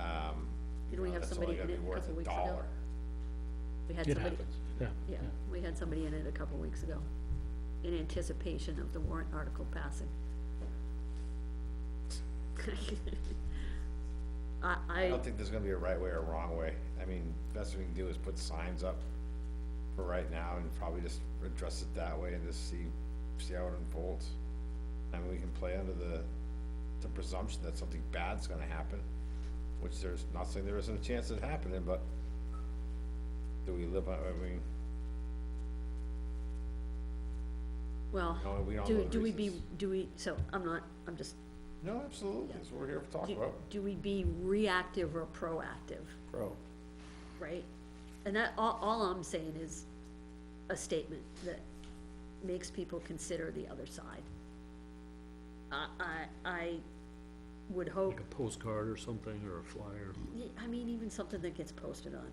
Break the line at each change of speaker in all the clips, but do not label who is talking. um,
Didn't we
you know,
have
that's only
somebody in
gonna
it
be
a
worth
couple
a
weeks ago?
dollar.
We had
It
somebody,
happens, yeah.
yeah, we had somebody in it a couple weeks ago, in anticipation of the warrant article passing. I,
I
I,
don't think there's gonna be a right way or a wrong way. I mean, best we can do is put signs up for right now and probably just address it that way and just see, see how it unfolds. I mean, we can play under the, the presumption that something bad's gonna happen, which there's, not saying there isn't a chance of it happening, but do we live, on- I mean,
well,
No, we don't know
do,
the
do we be,
reasons.
do we, so, I'm not, I'm just,
no, absolutely, that's what we're here to talk
do,
about.
do we be reactive or proactive?
Bro.
right? And that, all, all I'm saying is a statement that makes people consider the other side. I, I, I would hope,
Like a postcard or something, or a flyer.
y- I mean, even something that gets posted on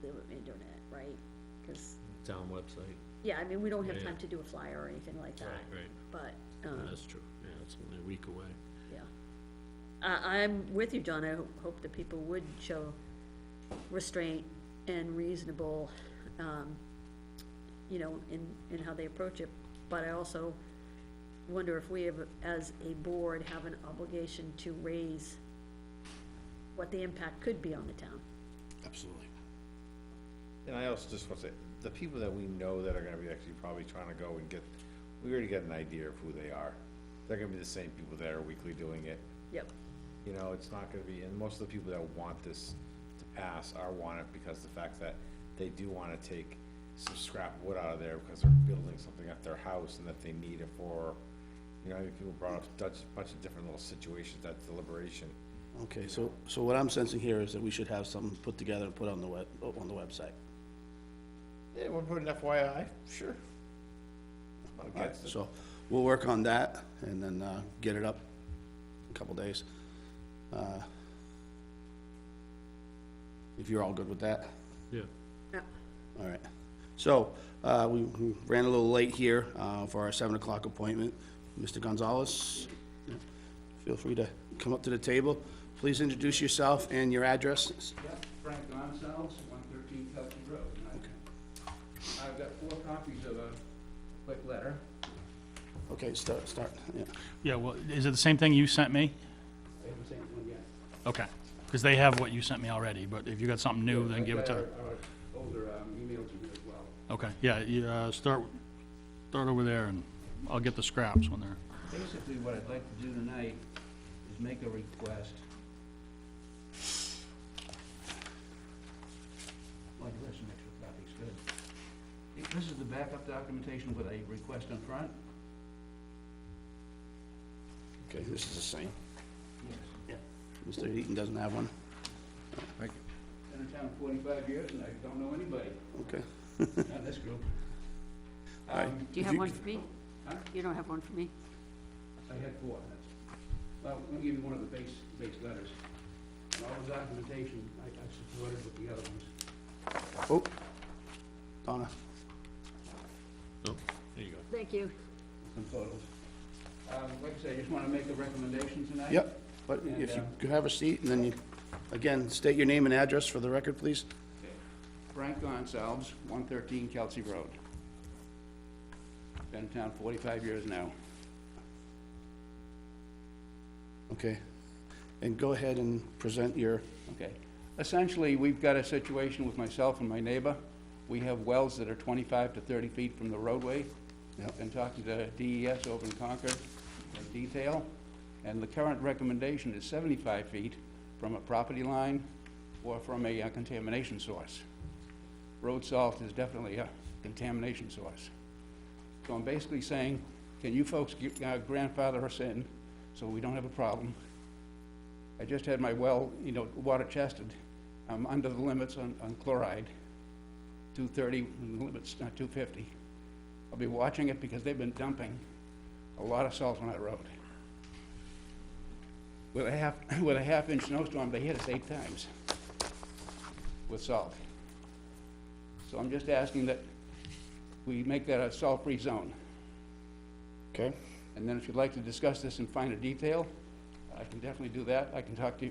the internet, right? Cause,
town website.
yeah, I mean, we don't have
Yeah.
time to do a flyer or anything like that.
Right,
But, um,
That's true, yeah, it's only a week away.
Yeah. I, I'm with you, John. I ho- hope that people would show restraint and reasonable, um, you know, in, in how they approach it. But I also wonder if we have, as a board, have an obligation to raise what the impact could be on the town.
Absolutely.
And I also just want to say, the people that we know that are gonna be actually probably trying to go and get, we already got an idea of who they are. They're gonna be the same people that are weekly doing it.
Yep.
You know, it's not gonna be, and most of the people that want this to pass are want it because the fact that they do wanna take some scrap wood out of there because they're building something at their house and that they need it for, you know, I mean, people brought up a bunch, bunch of different little situations, that deliberation.
Okay, so, so what I'm sensing here is that we should have something put together and put on the web, on the website.
Yeah, we'll put an FYI, sure. I'm not against it.
So we'll work on that and then, uh, get it up in a couple days. Uh, If you're all good with that,
Yeah,
Yep.
all right. So, uh, we we ran a little late here, uh, for our seven o'clock appointment. Mr. Gonzalez, feel free to come up to the table. Please introduce yourself and your address.
Yes, Frank Gonzalez, one thirteen Pelkey Road. And I- I've got four copies of a quick letter.
Okay, start, start, yeah.
Yeah, well, is it the same thing you sent me?
I haven't seen one yet.
Okay, because they have what you sent me already, but if you got something new, then
I've
give it to
got
her.
our- our Older um, emails in here as well.
Okay, yeah, you, uh, start, start over there, and I'll get the scraps when they're,
Basically, what I'd like to do tonight is make a request. Well, you have some extra copies, good. If This is the backup documentation with a request in front?
Okay, this is the same.
Yes.
Mr. Heaton doesn't have one.
Been in town forty-five years and I don't know anybody,
Okay.
not this group.
Alright.
Um,
Um, Do you
If
have
you-
one for me?
Huh?
You don't have one for me?
I had four, that's, well, let me give you one of the base, base letters. And all the documentation, I, I supported with the other ones.
Oh, Donna.
no, there you go.
Thank you.
some photos. Um, Like I say, I just want to make a recommendation tonight.
Yep, but if you could have a seat, and then you, again, state your name and address for the record, please.
Frank Gonsalves, 113 Kelsey Road. Been in town 45 years now.
Okay. And go ahead and present your,
Okay. Essentially, we've got a situation with myself and my neighbor. We have wells that are 25 to 30 feet from the roadway.
Yep.
Been talking to DES over in Concord in detail, and the current recommendation is 75 feet from a property line or from a uh, contamination source. Road salt is definitely a contamination source. So I'm basically saying, can you folks gi- uh, grandfather us in so we don't have a problem? I just had my well, you know, water tested. I'm under the limits on, on chloride, 230, and the limit's not 250. I'll be watching it because they've been dumping a lot of salt on that road. With a half, with a half-inch snowstorm, they hit us eight times with salt. So I'm just asking that we make that a salt-free zone.
okay?
And then if you'd like to discuss this in finer detail, I can definitely do that. I can talk to